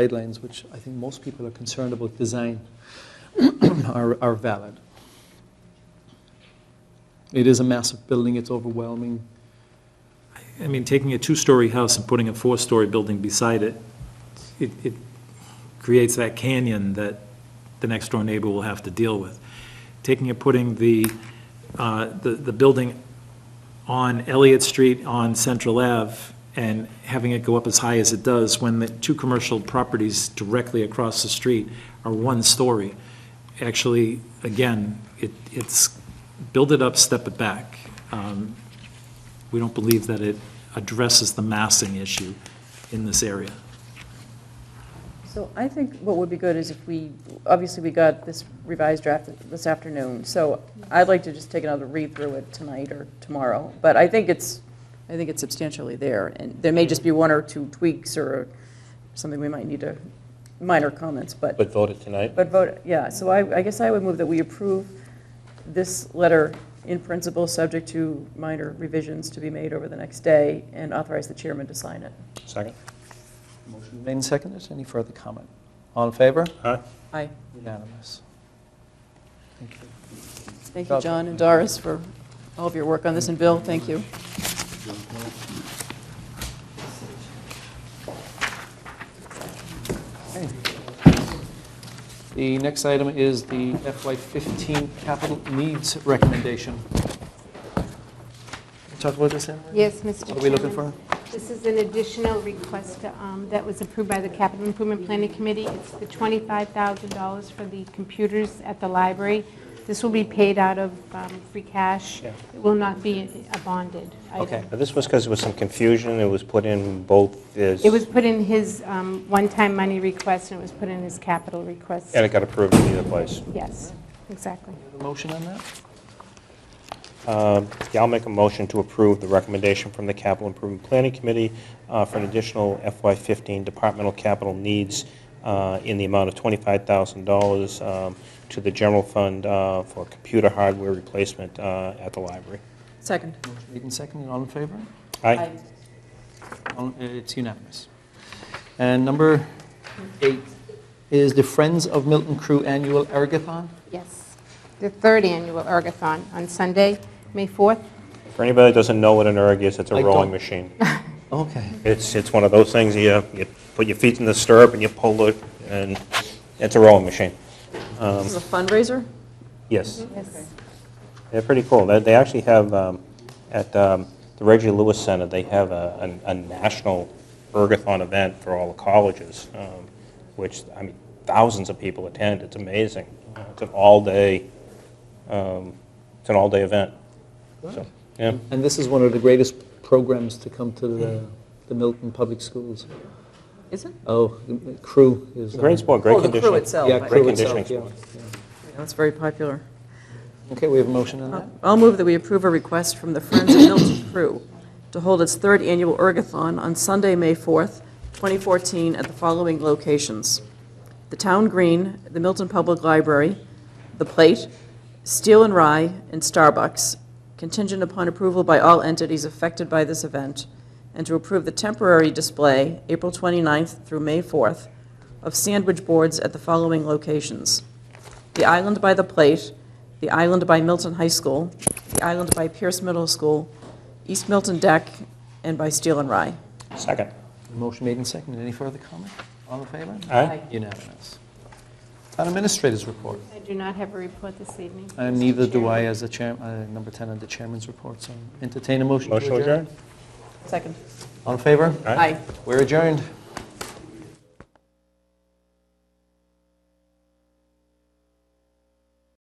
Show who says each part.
Speaker 1: guidelines, which I think most people are concerned about design, are, are valid. It is a massive building, it's overwhelming.
Speaker 2: I mean, taking a two-story house and putting a four-story building beside it, it, it creates that canyon that the next-door neighbor will have to deal with. Taking and putting the, uh, the, the building on Elliott Street on Central Ave and having it go up as high as it does when the two commercial properties directly across the street are one story. Actually, again, it, it's, build it up, step it back. Um, we don't believe that it addresses the massing issue in this area.
Speaker 3: So I think what would be good is if we, obviously, we got this revised draft this afternoon, so I'd like to just take another read through it tonight or tomorrow, but I think it's, I think it's substantially there, and there may just be one or two tweaks or something we might need to, minor comments, but,
Speaker 4: But vote it tonight?
Speaker 3: but vote, yeah, so I, I guess I would move that we approve this letter in principle, subject to minor revisions to be made over the next day, and authorize the chairman to sign it.
Speaker 4: Second?
Speaker 1: Motion made and seconded, any further comment? All in favor?
Speaker 4: Aye.
Speaker 3: Aye.
Speaker 1: Unanimous. Thank you.
Speaker 3: Thank you, John and Doris, for all of your work on this, and Bill, thank you.
Speaker 1: Okay. The next item is the FY15 capital needs recommendation. Talk about this, Anne Marie?
Speaker 5: Yes, Mr. Chairman.
Speaker 1: What are we looking for?
Speaker 5: This is an additional request um, that was approved by the Capital Improvement Planning Committee. It's the $25,000 for the computers at the library. This will be paid out of um, free cash.
Speaker 4: Yeah.
Speaker 5: It will not be a bonded item.
Speaker 1: Okay.
Speaker 4: Now, This was because there was some confusion, it was put in both as...
Speaker 5: It was put in his um, one-time money request, and it was put in his capital request.
Speaker 4: And it got approved in either place.
Speaker 5: Yes, exactly.
Speaker 1: Motion on that?
Speaker 4: Yeah, I'll make a motion to approve the recommendation from the Capital Improvement Planning Committee uh, for an additional FY15 departmental capital needs uh, in the amount of $25,000 um, to the general fund uh, for computer hardware replacement uh, at the library.
Speaker 3: Second.
Speaker 1: Motion made and seconded, all in favor?
Speaker 4: Aye.
Speaker 1: All- Oh, uh, It's unanimous. And number eight is the Friends of Milton Crew Annual Ergathon.
Speaker 5: Yes. The third annual ergathon on Sunday, May 4th.
Speaker 4: For anybody that doesn't know what an erg is, it's
Speaker 1: I
Speaker 4: a
Speaker 1: don't.
Speaker 4: rowing machine.
Speaker 1: Okay.
Speaker 4: It's, it's one of those things, you, you put your feet in the stirrup and you pull it, and it's a rowing machine.
Speaker 3: This is a fundraiser?
Speaker 4: Yes,
Speaker 5: Yes.
Speaker 4: they're pretty cool. They, they actually have, um, at um, the Reggie Lewis Center, they have a, a a national ergathon event for all the colleges, um, which, I mean, thousands of people attend. It's amazing. It's an all-day, um, it's an all-day event. So, yeah.
Speaker 1: And this is one of the greatest programs to come to the the Milton Public Schools.
Speaker 3: Is it?
Speaker 1: Oh, Crew is...
Speaker 4: Great
Speaker 1: sport.
Speaker 4: sport, great
Speaker 3: Oh, the crew
Speaker 4: conditioning.
Speaker 3: itself.
Speaker 1: Yeah,
Speaker 3: Great
Speaker 1: Crew itself,
Speaker 4: conditioning
Speaker 1: yeah.
Speaker 3: That's very popular.
Speaker 1: yeah. Okay, we have a motion on that?
Speaker 3: I'll move that we approve a request from the Friends of Milton Crew to hold its third annual ergathon on Sunday, May 4th, 2014, at the following locations: the Town Green, the Milton Public Library, The Plate, Steel and Rye, and Starbucks, contingent upon approval by all entities affected by this event, and to approve the temporary display, April 29th through May 4th, of sandwich boards at the following locations: the Island by the Plate, the Island by Milton High School, the Island by Pierce Middle School, East Milton Deck, and by Steel and Rye.
Speaker 4: Second.
Speaker 1: Motion made and seconded. Any further comment? All in favor?
Speaker 4: Aye.
Speaker 1: Unanimous. Town Administrator's Report.
Speaker 5: I do not have a report this evening.
Speaker 1: And
Speaker 5: Mr.
Speaker 1: neither do
Speaker 5: Chairman.
Speaker 1: I as the chair, uh, number 10 on the chairman's report, so entertain a motion to
Speaker 4: Motion
Speaker 1: adjourn.
Speaker 4: adjourned?
Speaker 3: Second.
Speaker 1: All in favor?
Speaker 4: Aye.
Speaker 3: Aye.
Speaker 1: We're adjourned.